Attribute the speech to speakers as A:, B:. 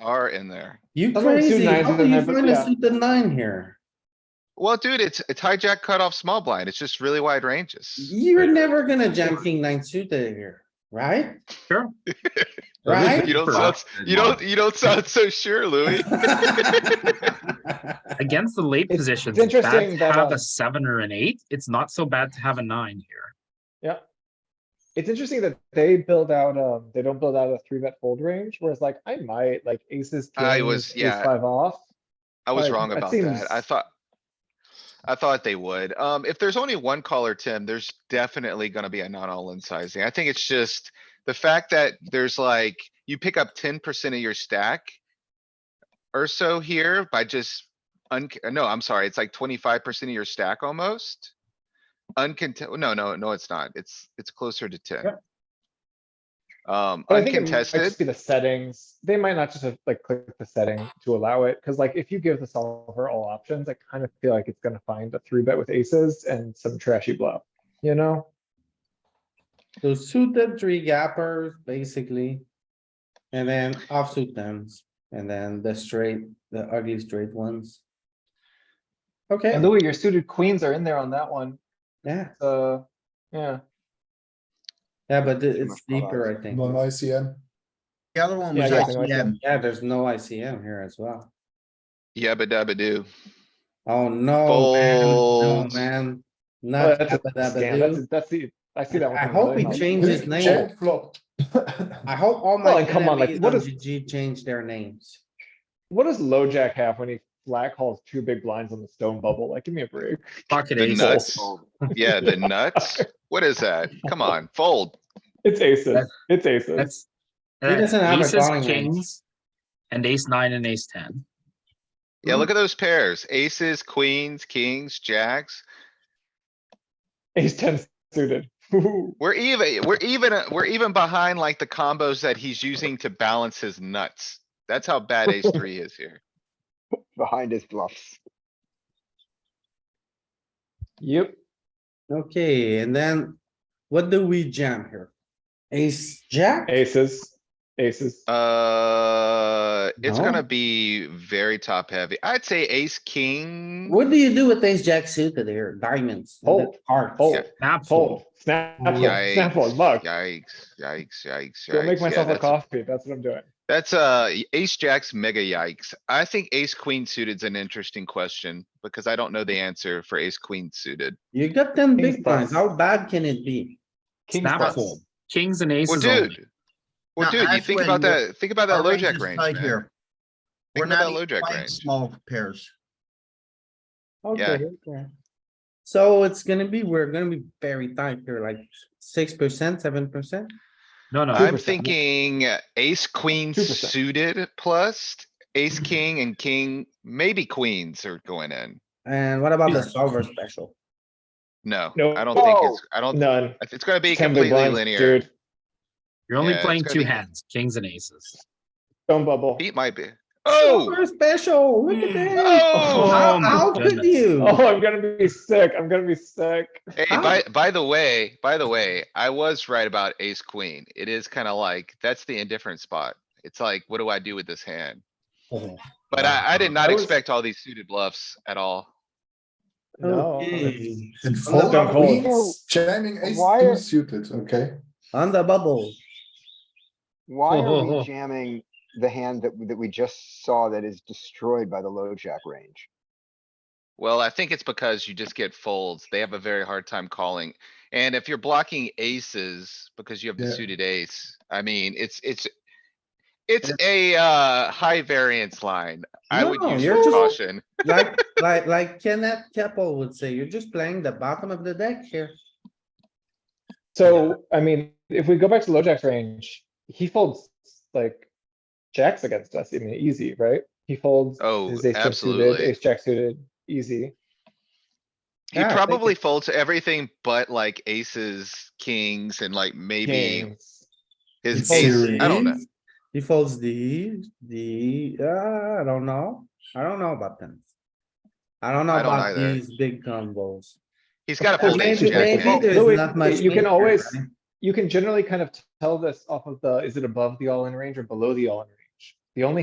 A: are in there.
B: You
C: That's why
B: crazy,
C: suit nines
B: how
C: is
B: do
C: in
B: you
C: there, but
B: find a
C: yeah.
B: suited nine here?
A: Well, dude, it's, it's hijack cutoff small blind. It's just really wide ranges.
B: You're never gonna jam king nine suited here, right?
D: Sure.
B: Right?
A: You don't
D: Sure.
A: sound, you don't, you don't sound so sure, Louis.
D: Against the late
C: It's-
D: positions,
C: it's
D: it's bad
C: interesting
D: to
C: that,
D: have
C: uh,
D: a seven or an eight. It's not so bad to have a nine here.
C: It's interesting that they build out, um, they don't build out a three bet fold range, whereas like I might like aces.
A: I
C: kings,
A: was-
C: ace
A: yeah.
C: Five off.
A: I was
C: Like,
A: wrong
C: that
A: about
C: seems-
A: that. I thought. I thought they would. Um, if there's only one caller, Tim, there's definitely gonna be a not all in sizing. I think it's just the fact that there's like, you pick up ten percent of your stack. Or so here by just un, no, I'm sorry, it's like twenty-five percent of your stack almost. Uncontested, no, no, no, it's not. It's, it's closer to ten.
C: Yep.
A: Um,
C: But I think it might
A: uncontested.
C: just be the settings. They might not just have like clicked the setting to allow it, because like if you give the solver all options, I kind of feel like it's gonna find a three bet with aces and some trashy bluff, you know?
B: So suited three gappers, basically. And then offsuit tens, and then the straight, the ugly straight ones. Okay,
C: And Louis, your suited queens are in there on that one,
B: yeah,
C: so, yeah.
B: yeah, but it- it's deeper, I think.
E: Non ICM.
F: The other one
C: Yeah,
F: was
C: I got the
F: ICM.
C: ICM.
B: Yeah, there's no ICM here as well.
A: Yabba dabba uh, do.
B: Oh, no, man, no,
A: Fold.
B: man.
C: Well,
B: Not
C: Oh, That's a scam.
B: dabba-dabba-doo.
C: That's- that's the, I see that one.
B: I
C: coming
B: hope
C: really
B: he
C: hard.
B: changed his name.
E: Check flop.
B: I hope all
C: Well,
B: my
C: and come on, like,
B: enemies
C: what
B: on
C: is-
B: GG change their names.
C: What does LoJack have when he flat calls two big blinds on the stone bubble? Like, give me a break.
D: Pocket
A: The
D: aces.
A: nuts. Yeah, the nuts. What is that? Come on, fold.
C: It's aces,
D: That's-
C: it's aces.
D: That's.
B: He
D: that's
B: doesn't have a
D: aces,
B: calling range.
D: kings, And ace nine and ace ten.
A: Yeah, look at those pairs. Aces, queens, kings, jacks.
C: Ace ten suited.
A: We're even, we're even, uh, we're even behind like the combos that he's using to balance his nuts. That's how bad ace three is here.
G: behind his bluffs.
C: Yep.
B: Okay, and then what do we jam here? Ace, jack?
C: Aces, aces.
A: Uh, it's
B: No.
A: gonna be very top heavy. I'd say ace, king.
B: What do you do with ace, jack suited here? Diamonds, and then
C: Fold.
B: hearts.
C: Fold,
D: Snap
C: fold, snap, fold, snap, fold,
A: Yikes,
C: look.
A: yikes, yikes, yikes.
C: Go
A: yikes.
C: make
A: Yeah,
C: myself a
A: that's-
C: coffee, that's what I'm doing.
A: That's uh y- ace jacks mega yikes. I think ace queen suited's an interesting question because I don't know the answer for ace queen suited.
B: You got ten
C: Kings
B: big blinds,
C: plus.
B: how bad can it be?
C: King's
D: Snap
C: nuts.
D: fold. Kings and
A: Well,
D: aces only.
A: dude. Well,
F: Now,
A: dude, you
F: that's
A: think about
F: when
A: that, think about that
F: Our
A: low
F: range
A: jack
F: is
A: range,
F: tight
A: man.
F: here. We're
A: Think about
F: not
A: that low
F: even
A: jack
F: playing
A: range.
F: small pairs.
A: Yeah.
C: Okay, okay.
B: So it's gonna be, we're gonna be very tight here, like six percent, seven percent?
D: No, no.
A: I'm
C: 2%.
A: thinking uh, ace queen
C: 2%.
A: suited plus ace king and king, maybe queens are going in.
B: And what about the solver special?
A: No,
C: No.
A: I don't think
G: No.
A: it's, I don't,
C: None.
A: it's gonna be
C: Ten big
A: completely
C: blinds,
A: linear.
C: dude.
D: You're only
A: Yeah, it's
D: playing
A: gonna
D: two
A: be-
D: hands, kings and aces.
C: Stone bubble.
A: Pete might be. Oh,
B: Solver Special, look at that.
A: oh.
B: How,
D: Oh my
B: how could
D: goodness.
B: you?
C: Oh, I'm gonna be sick, I'm gonna be sick.
A: Hey,
B: Ah.
A: by, by the way, by the way, I was right about ace queen. It is kinda like, that's the indifferent spot. It's like, what do I do with this hand? But I, I did not
C: I was-
A: expect all these suited bluffs at all.
C: No.
B: Okay.
E: And
B: On the
E: fold
C: bubble.
E: queens, jamming ace
G: Why
E: two
G: are-
E: suited, okay?
B: On the bubble,
G: Why are
D: Oh.
G: we jamming the hand that, that we just saw that is destroyed by the low jack range?
A: Well, I think it's because you just get folds. They have a very hard time calling. And if you're blocking aces because you have the
E: Yeah.
A: suited ace, I mean, it's, it's. It's a, uh, high variance line. I would
B: No,
A: use
B: you're
A: some
B: just-
A: caution.
B: like, like, like Kenneth Keppel would say, you're just playing the bottom of the deck here.
C: So, I mean, if we go back to low jack's range, he folds like jacks against us, I mean, easy, right? He folds.
A: Oh,
C: his ace jack suited,
A: absolutely.
C: Ace jack suited, easy.
A: He
B: Yeah, I think
A: probably folds everything but like aces, kings, and like maybe
C: Kings.
A: his
B: folds
A: ace, I don't know.
B: these, He folds these, the, uh, I don't know. I don't know about them. I don't know
A: I don't
B: about
A: either.
B: these big combos.
A: He's gotta
C: course,
A: fold ace
C: maybe-
A: jack.
C: maybe
A: man.
C: there's- Louis, you
B: meat
C: can
B: here,
C: always-
B: right?
C: you can generally kind of tell this off of the, is it above the all-in range or below the all-in range? The only